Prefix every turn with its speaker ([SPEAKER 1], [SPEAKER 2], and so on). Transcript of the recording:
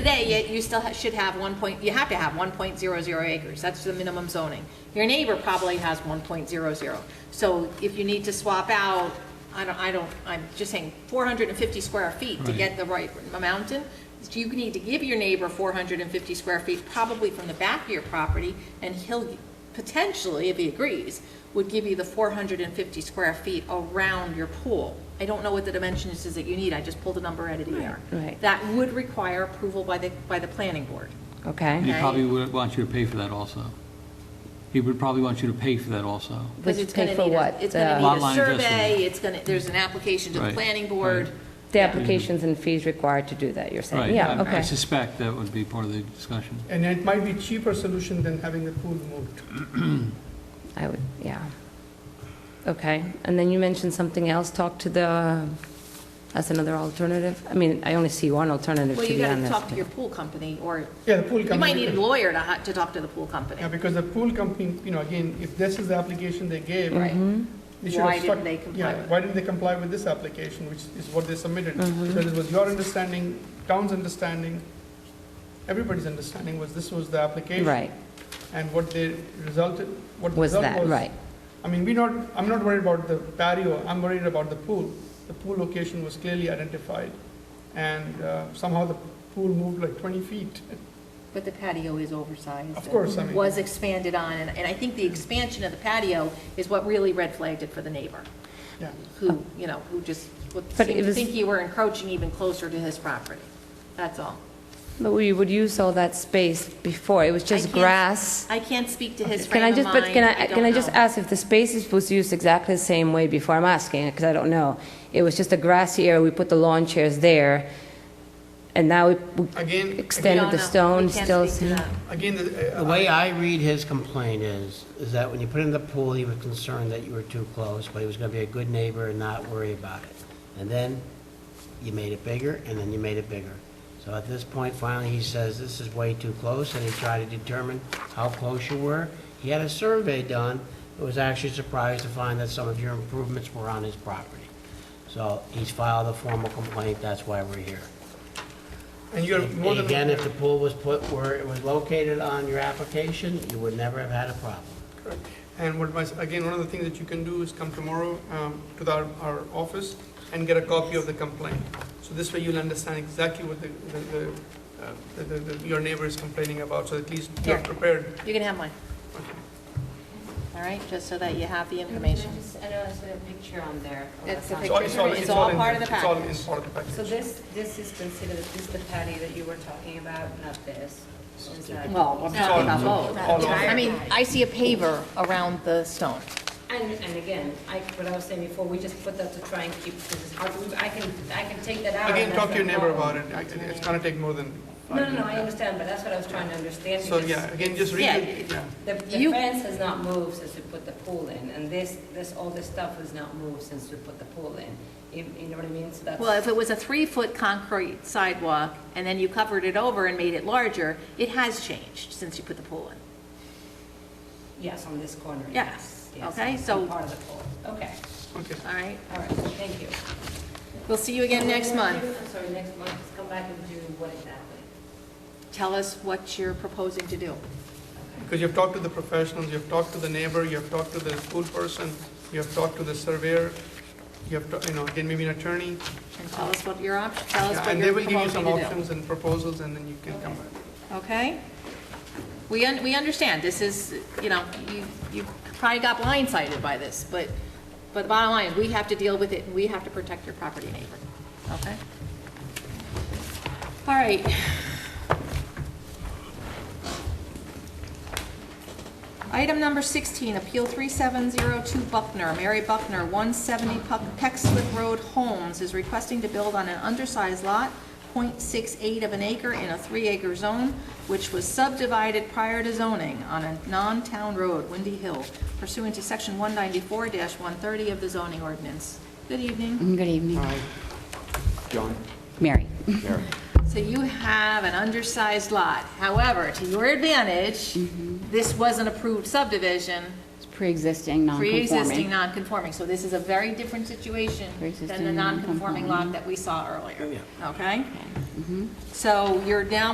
[SPEAKER 1] Today, yet you still ha- should have one point, you have to have one point zero zero acres, that's the minimum zoning. Your neighbor probably has one point zero zero. So if you need to swap out, I don't, I don't, I'm just saying, four hundred and fifty square feet to
[SPEAKER 2] Right.
[SPEAKER 1] get the right mountain, you need to give your neighbor four hundred and fifty square feet, probably from the back of your property, and he'll potentially, if he agrees, would give you the four hundred and fifty square feet around your pool. I don't know what the dimensions is that you need, I just pulled a number out of the air.
[SPEAKER 3] Right.
[SPEAKER 1] That would require approval by the, by the planning board.
[SPEAKER 3] okay?
[SPEAKER 2] He probably would want you to pay for that also. He would probably want you to pay for that also.
[SPEAKER 1] Because
[SPEAKER 3] Which
[SPEAKER 1] it's going
[SPEAKER 3] pay
[SPEAKER 1] to
[SPEAKER 3] for
[SPEAKER 1] need, a-
[SPEAKER 3] what?
[SPEAKER 1] it's
[SPEAKER 3] The-
[SPEAKER 1] going to
[SPEAKER 2] Lot
[SPEAKER 1] need a
[SPEAKER 2] line adjustment.
[SPEAKER 1] survey, it's going to, there's an application to the
[SPEAKER 2] Right,
[SPEAKER 1] planning board.
[SPEAKER 2] right.
[SPEAKER 3] The applications and fees required to do that, you're
[SPEAKER 2] Right.
[SPEAKER 3] saying? Yeah,
[SPEAKER 2] I- I
[SPEAKER 3] okay.
[SPEAKER 2] suspect that would be part of the discussion.
[SPEAKER 4] And it might be cheaper solution than having the pool moved.
[SPEAKER 3] I would, yeah. Okay, and then you mentioned something else, talk to the, that's another alternative? I mean, I only see one alternative,
[SPEAKER 1] Well,
[SPEAKER 3] to
[SPEAKER 1] you
[SPEAKER 3] be
[SPEAKER 1] got to
[SPEAKER 3] honest.
[SPEAKER 1] talk to your pool company, or
[SPEAKER 4] Yeah, the pool company.
[SPEAKER 1] you might need a lawyer to, ha- to talk to the pool company.
[SPEAKER 4] Yeah, because the pool company, you know, again, if this is the application they gave.
[SPEAKER 1] Right.
[SPEAKER 4] they should
[SPEAKER 1] Why
[SPEAKER 4] have
[SPEAKER 1] didn't
[SPEAKER 4] stuck-
[SPEAKER 1] they comply
[SPEAKER 4] yeah,
[SPEAKER 1] with
[SPEAKER 4] Why didn't they comply with this application, which is what they submitted?
[SPEAKER 1] Mm-hmm.
[SPEAKER 4] So it was your understanding, town's understanding, everybody's understanding was this was the application.
[SPEAKER 3] Right,
[SPEAKER 4] And what they resulted, what the
[SPEAKER 3] was
[SPEAKER 4] result
[SPEAKER 3] that,
[SPEAKER 4] was.
[SPEAKER 3] right.
[SPEAKER 4] I mean, we not, I'm not worried about the patio, I'm worried about the pool. The pool location was clearly identified, and uh, somehow the pool moved like 20 feet.
[SPEAKER 1] But the patio is oversized.
[SPEAKER 4] Of course, I
[SPEAKER 1] and
[SPEAKER 4] mean-
[SPEAKER 1] Was expanded on, and, and I think the expansion of the patio is what really red flagged it for the neighbor,
[SPEAKER 4] Yeah,
[SPEAKER 1] who, you know, who just would
[SPEAKER 3] But it
[SPEAKER 1] seem to
[SPEAKER 3] was-
[SPEAKER 1] think you were encroaching even closer to his property. That's all.
[SPEAKER 3] But we would use all that space before, it was
[SPEAKER 1] I
[SPEAKER 3] just
[SPEAKER 1] can't-
[SPEAKER 3] grass.
[SPEAKER 1] I can't speak to his
[SPEAKER 3] Can
[SPEAKER 1] frame
[SPEAKER 3] I
[SPEAKER 1] of
[SPEAKER 3] just, but
[SPEAKER 1] mind.
[SPEAKER 3] can I,
[SPEAKER 1] don't
[SPEAKER 3] can I just
[SPEAKER 1] know.
[SPEAKER 3] ask if the space was used exactly the same way before? I'm asking, because I don't know. It was just a grassy area, we put the lawn chairs there, and now we- we
[SPEAKER 4] Again-
[SPEAKER 1] We
[SPEAKER 3] extended
[SPEAKER 1] don't
[SPEAKER 3] the
[SPEAKER 1] know. We
[SPEAKER 3] stone,
[SPEAKER 1] can't
[SPEAKER 3] still.
[SPEAKER 1] speak to that.
[SPEAKER 4] again, the- uh,
[SPEAKER 5] The way I read his complaint is, is that when you put in the pool, he was concerned that you were too close, but he was gonna be a good neighbor and not worry about it. And then you made it bigger, and then you made it bigger. So at this point, finally, he says, this is way too close, and he tried to determine how close you were. He had a survey done, and was actually surprised to find that some of your improvements were on his property. So he's filed a formal complaint, that's why we're here.
[SPEAKER 4] and you're more than.
[SPEAKER 5] Again, if the pool was put where it was located on your application, you would never have had a problem.
[SPEAKER 4] Correct. And what my, again, one of the things that you can do is come tomorrow um, to the- our office and get a copy of the complaint. So this way you'll understand exactly what the, the- the, uh, the- the- the- your neighbor is complaining about, so at least you're
[SPEAKER 1] Yeah.
[SPEAKER 4] prepared.
[SPEAKER 1] You can have mine. All right, just so that you have the information.
[SPEAKER 3] I know there's a picture on there.
[SPEAKER 1] It's the
[SPEAKER 4] It's all-
[SPEAKER 1] picture. It's all
[SPEAKER 4] in-
[SPEAKER 1] part of the
[SPEAKER 4] It's all
[SPEAKER 1] package.
[SPEAKER 4] in part of the package.
[SPEAKER 6] So this, this is considered, this is the patio that you were talking about, not this? Is that-
[SPEAKER 1] Well, I'm talking about both.
[SPEAKER 4] Hold on.
[SPEAKER 1] I mean, I see a paver around the stone.
[SPEAKER 6] And, and again, I, what I was saying before, we just put that to try and keep, because it's hard, to- I can, I can take that out. and
[SPEAKER 4] Again,
[SPEAKER 6] that's
[SPEAKER 4] talk to your
[SPEAKER 6] no
[SPEAKER 4] neighbor about
[SPEAKER 6] problem.
[SPEAKER 4] it, I- it's gonna take more than.
[SPEAKER 6] No, no, no, I understand, but that's what I was trying to understand.
[SPEAKER 4] So,
[SPEAKER 6] because
[SPEAKER 4] yeah, again, just read
[SPEAKER 1] Yeah.
[SPEAKER 4] it, yeah.
[SPEAKER 6] The, the
[SPEAKER 1] You-
[SPEAKER 6] fence has not moved since we put the pool in, and this, this, all this stuff has not moved since we put the pool in. You, you know what I mean? So that's.
[SPEAKER 1] Well, if it was a three-foot concrete sidewalk, and then you covered it over and made it larger, it has changed since you put the pool in.
[SPEAKER 6] Yes, on this corner.
[SPEAKER 1] Yes,
[SPEAKER 6] Yes,
[SPEAKER 1] okay,
[SPEAKER 6] on
[SPEAKER 1] so-
[SPEAKER 6] Part of the pool, okay,
[SPEAKER 4] Okay.
[SPEAKER 1] All right?
[SPEAKER 6] all right, thank you.
[SPEAKER 1] We'll see you again next month.
[SPEAKER 6] I'm sorry, next month, just come back and do what exactly?
[SPEAKER 1] Tell us what you're proposing to do.
[SPEAKER 4] Because you've talked to the professionals, you've talked to the neighbor, you've talked to the pool person, you've talked to the surveyor, you have, ta- you know, again, maybe an attorney.
[SPEAKER 1] And tell us what your option, tell us
[SPEAKER 4] Yeah,
[SPEAKER 1] what
[SPEAKER 4] And they
[SPEAKER 1] you're
[SPEAKER 4] will give you
[SPEAKER 1] proposing
[SPEAKER 4] some
[SPEAKER 1] to do.
[SPEAKER 4] options and proposals, and then you can come back.
[SPEAKER 1] Okay? We, un- we understand, this is, you know, you, you probably got blindsided by this, but, but the bottom line, is we have to deal with it, and we have to protect your property neighbor, okay? All right. Item number 16, Appeal 3702 Buckner, Mary Buckner, 170 Puck- Pecksliff Road, Holmes, is requesting to build on an undersized lot, .68 of an acre in a three-acre zone, which was subdivided prior to zoning on a non-town road, Windy Hill, pursuant to Section 194-130 of the zoning ordinance. Good evening.
[SPEAKER 7] Good evening.
[SPEAKER 8] Hi. John?
[SPEAKER 7] Mary.
[SPEAKER 8] Mary.
[SPEAKER 1] So you have an undersized lot. However, to your advantage,
[SPEAKER 7] Mm-hmm.
[SPEAKER 1] this was an approved subdivision,
[SPEAKER 7] It's pre-existing, non-conforming.
[SPEAKER 1] Pre-existing non-conforming, so this is a very different situation than the
[SPEAKER 7] Pre-existing
[SPEAKER 1] non-conforming lot
[SPEAKER 7] non-conforming. Mm-hmm.
[SPEAKER 1] that we saw earlier, okay? So you're down